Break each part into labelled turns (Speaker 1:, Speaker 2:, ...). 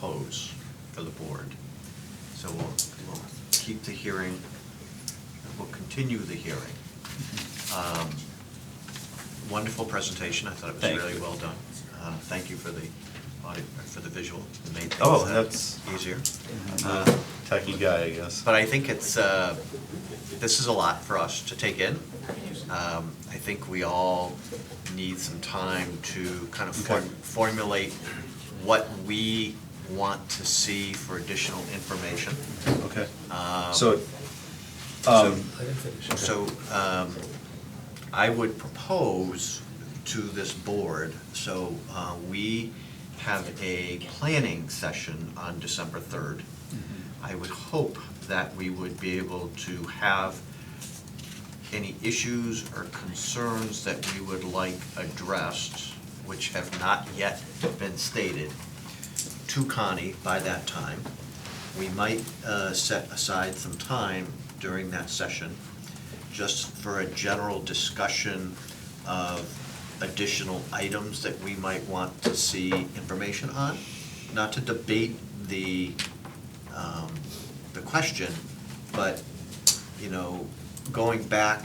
Speaker 1: goes for the board. So we'll, we'll keep the hearing, we'll continue the hearing. Um, Wonderful presentation, I thought it was
Speaker 2: Thank
Speaker 1: really
Speaker 2: you.
Speaker 1: well done. Uh, Thank you for the audio, for the visual, it made
Speaker 2: Oh,
Speaker 1: things uh,
Speaker 2: that's-
Speaker 1: easier.
Speaker 2: I'm
Speaker 1: Uh,
Speaker 2: a Techie guy, I guess.
Speaker 1: But I think it's, uh, this is a lot for us to take in. Um, I think we all need some time to kind of form-
Speaker 2: Okay.
Speaker 1: formulate what we want to see for additional information.
Speaker 2: Okay.
Speaker 1: Um,
Speaker 2: So, um,
Speaker 1: So um, I would propose to this board, so uh, we have a planning session on December 3rd. I would hope that we would be able to have any issues or concerns that we would like addressed, which have not yet been stated, to Connie by that time. We might uh, set aside some time during that session just for a general discussion of additional items that we might want to see information on, not to debate the, um, the question, but, you know, going back,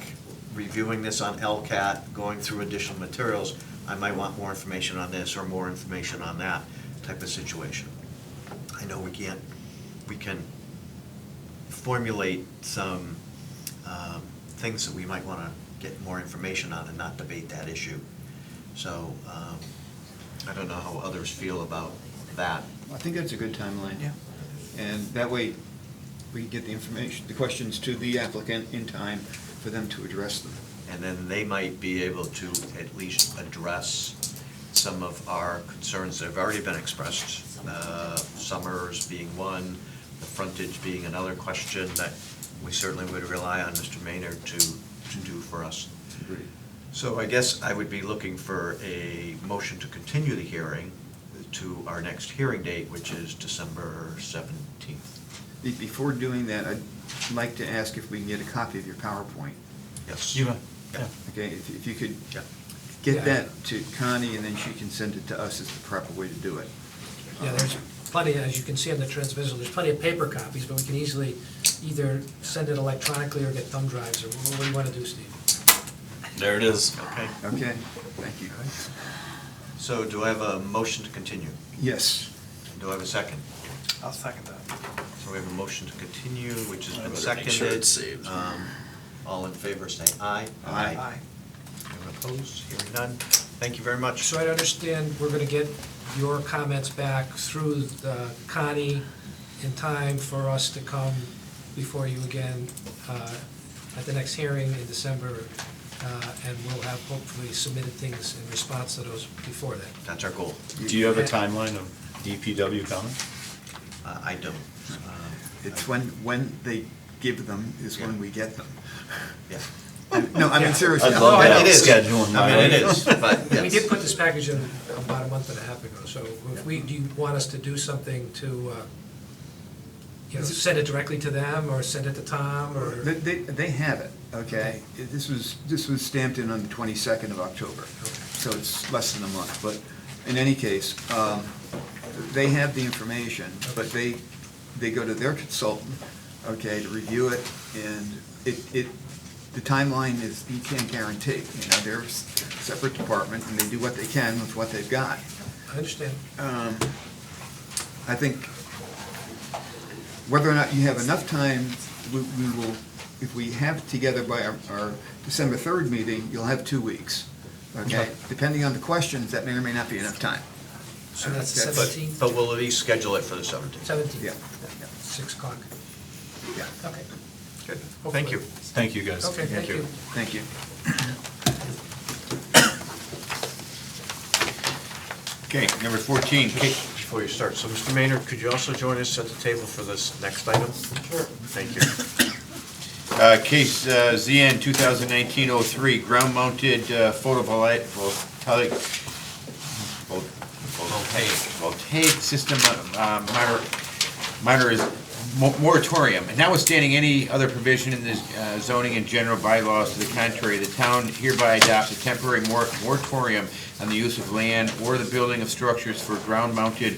Speaker 1: reviewing this on LCAT, going through additional materials, I might want more information on this or more information on that type of situation. I know we can't, we can formulate some um, things that we might want to get more information on and not debate that issue. So um, I don't know how others feel about that.
Speaker 3: I think that's a good timeline. And that way, we can get the information, the questions to the applicant in time for them to address them.
Speaker 1: And then they might be able to at least address some of our concerns that have already been expressed. Uh, Summers being one, the frontage being another question that we certainly would rely on Mr. Maynard to, to do for us.
Speaker 3: Agreed.
Speaker 1: So I guess I would be looking for a motion to continue the hearing to our next hearing date, which is December 17th.
Speaker 3: Be- Before doing that, I'd like to ask if we can get a copy of your PowerPoint.
Speaker 1: Yes.
Speaker 2: You may,
Speaker 1: Yeah.
Speaker 3: Okay, if if you could
Speaker 1: Yeah.
Speaker 3: get that to Connie, and then she can send it to us, is the proper way to do it.
Speaker 4: Yeah, there's plenty, as you can see on the transmittal, there's plenty of paper copies, but we can easily either send it electronically or get thumb drives, or what do you want to do, Steve?
Speaker 2: there it is.
Speaker 1: Okay,
Speaker 3: Okay, thank you.
Speaker 1: so do I have a motion to continue?
Speaker 3: Yes.
Speaker 1: Do I have a second?
Speaker 5: I'll second that.
Speaker 1: So we have a motion to continue, which has
Speaker 2: I
Speaker 1: been
Speaker 2: better make sure
Speaker 1: seconded.
Speaker 2: it's saved.
Speaker 1: Um, All in favor, say aye.
Speaker 3: Aye.
Speaker 5: Aye.
Speaker 1: Anyone opposed? Hearing none. Thank you very much.
Speaker 4: So I understand we're going to get your comments back through uh, Connie in time for us to come before you again uh, at the next hearing in December, uh, and we'll have hopefully submitted things in response to those before then.
Speaker 1: That's our goal.
Speaker 2: Do you have a timeline of DPW coming?
Speaker 1: Uh, I don't. Um,
Speaker 3: It's when, when they give them is when
Speaker 1: Yeah.
Speaker 3: we get them.
Speaker 1: Yeah.
Speaker 3: No, I mean, seriously.
Speaker 2: I'd love to have
Speaker 1: it
Speaker 2: a
Speaker 1: is.
Speaker 2: schedule in
Speaker 1: I mean,
Speaker 2: mind.
Speaker 1: it is, but
Speaker 4: We did
Speaker 1: yes.
Speaker 4: put this package in about a month and a half ago, so if we, do you want us to do something to, uh, you know, send it directly to them, or send it to Tom, or?
Speaker 3: They, they, they have it, okay? This was, this was stamped in on the 22nd of October, so it's less than a month. But in any case, um, they have the information, but they, they go to their consultant, okay, to review it, and it, it, the timeline is, you can't guarantee. You know, they're a s- separate department, and they do what they can with what they've got.
Speaker 4: I understand.
Speaker 3: Um, I think whether or not you have enough time, we we will, if we have it together by our- our December 3rd meeting, you'll have two weeks, okay? Depending on the questions, that may or may not be enough time.
Speaker 4: So that's the
Speaker 3: But-
Speaker 1: But,
Speaker 4: seventeenth,
Speaker 1: but we'll at least schedule it for the 17th.
Speaker 3: Yeah,
Speaker 4: seventeenth,
Speaker 3: yeah,
Speaker 4: six o'clock.
Speaker 3: yeah.
Speaker 4: Okay,
Speaker 1: Good. Thank you.
Speaker 2: Thank you, guys.
Speaker 4: okay, thank you.
Speaker 3: Thank you.
Speaker 6: Okay, number 14,
Speaker 1: Kate, before you start, so Mr. Maynard, could you also join us at the table for this next item? Sure. Thank you.
Speaker 6: uh, case uh, ZN 2019-03, ground-mounted uh, photovoli- voltaic, vol- voltaic system uh, minor, minor is mo- moratorium. And notwithstanding any other provision in the uh, zoning and general bylaws to the contrary, the town hereby adopts a temporary mor- moratorium on the use of land or the building of structures for ground-mounted